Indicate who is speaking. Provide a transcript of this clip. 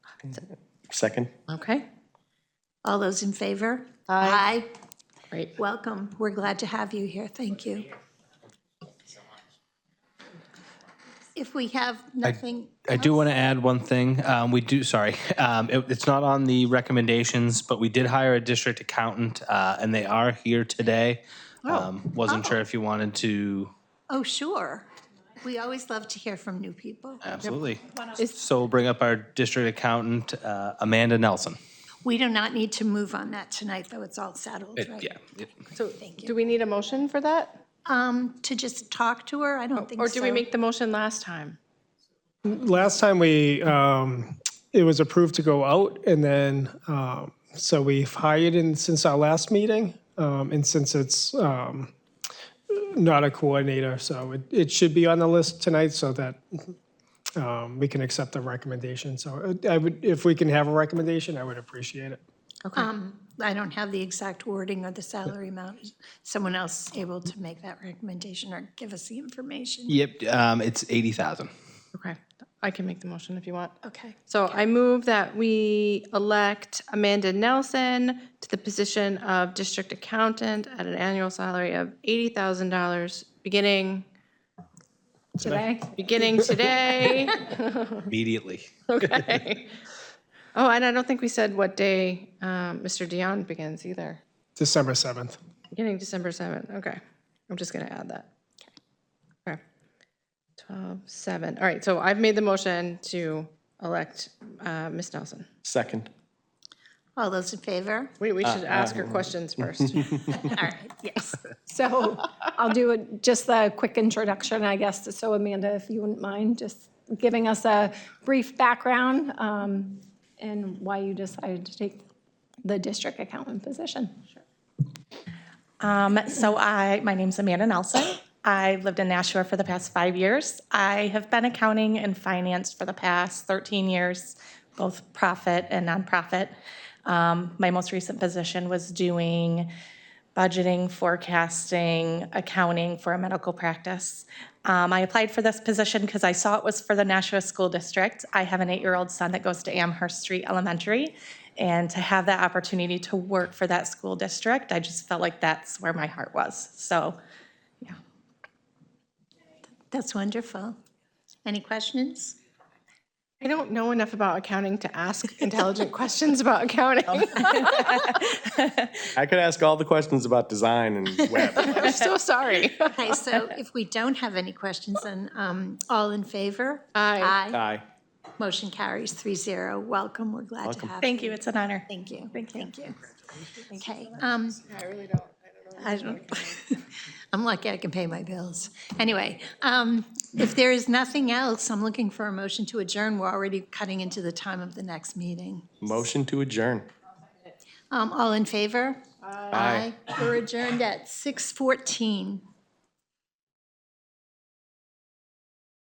Speaker 1: Second?
Speaker 2: Okay,
Speaker 3: All those in favor? Aye.
Speaker 2: great.
Speaker 3: Welcome. We're glad to have you here. Thank you. If we have nothing,
Speaker 4: I do want to add one thing. Um, we do, sorry, um, it, it's not on the recommendations, but we did hire a district accountant, uh, and they are here today. Um, wasn't sure if you wanted to.
Speaker 3: oh, sure. We always love to hear from new people.
Speaker 4: Absolutely. So we'll bring up our district accountant, uh, Amanda Nelson.
Speaker 3: We do not need to move on that tonight, though it's all settled, right?
Speaker 4: Yeah.
Speaker 2: So do we need a motion for that?
Speaker 3: Um, to just talk to her? I don't think so.
Speaker 2: Or do we make the motion last time?
Speaker 5: Last time we, um, it was approved to go out and then, um, so we've hired in since our last meeting. Um, and since it's, um, not a coordinator, so it, it should be on the list tonight so that, um, we can accept the recommendation. So uh, I would, if we can have a recommendation, I would appreciate it.
Speaker 3: I don't have the exact wording or the salary amount. Is Someone else able to make that recommendation or give us the information?
Speaker 4: Yep. Um, it's eighty thousand.
Speaker 2: Okay, I can make the motion if you want.
Speaker 3: Okay.
Speaker 2: So I move that we elect Amanda Nelson to the position of district accountant at an annual salary of $80,000, beginning,
Speaker 3: Today?
Speaker 2: beginning today.
Speaker 4: Immediately.
Speaker 2: Okay. Oh, and I don't think we said what day um, Mr. Dion begins either.
Speaker 5: December 7th.
Speaker 2: Beginning December 7th, okay. I'm just going to add that. Okay. 12, 7, all right, so I've made the motion to elect uh, Ms. Nelson.
Speaker 1: Second.
Speaker 3: All those in favor?
Speaker 2: Wait, we should ask her questions first.
Speaker 3: All right, yes.
Speaker 6: So I'll do a- just the quick introduction, I guess. So Amanda, if you wouldn't mind, just giving us a brief background um, and why you decided to take the district accountant position.
Speaker 7: Um, so I, my name's Amanda Nelson. I've lived in Nashua for the past five years. I have been accounting and finance for the past 13 years, both profit and nonprofit. Um, my most recent position was doing budgeting, forecasting, accounting for a medical practice. Um, I applied for this position because I saw it was for the Nashua School District. I have an eight-year-old son that goes to Amherst Street Elementary, and to have that opportunity to work for that school district, I just felt like that's where my heart was. So
Speaker 3: That's wonderful. Any questions?
Speaker 2: I don't know enough about accounting to ask intelligent questions about accounting.
Speaker 1: I could ask all the questions about design and web.
Speaker 2: I'm so sorry.
Speaker 3: Okay, so if we don't have any questions, then um, all in favor?
Speaker 2: Aye.
Speaker 1: Aye.
Speaker 3: Motion carries three zero. Welcome, we're glad to have you.
Speaker 7: thank you, it's an honor.
Speaker 3: Thank you. Thank you. Okay. um, I don't, I'm lucky I can pay my bills. Anyway, um, if there is nothing else, I'm looking for a motion to adjourn. We're already cutting into the time of the next meeting.
Speaker 1: Motion to adjourn.
Speaker 3: Um, All in favor? Aye. We're adjourned at 6:14.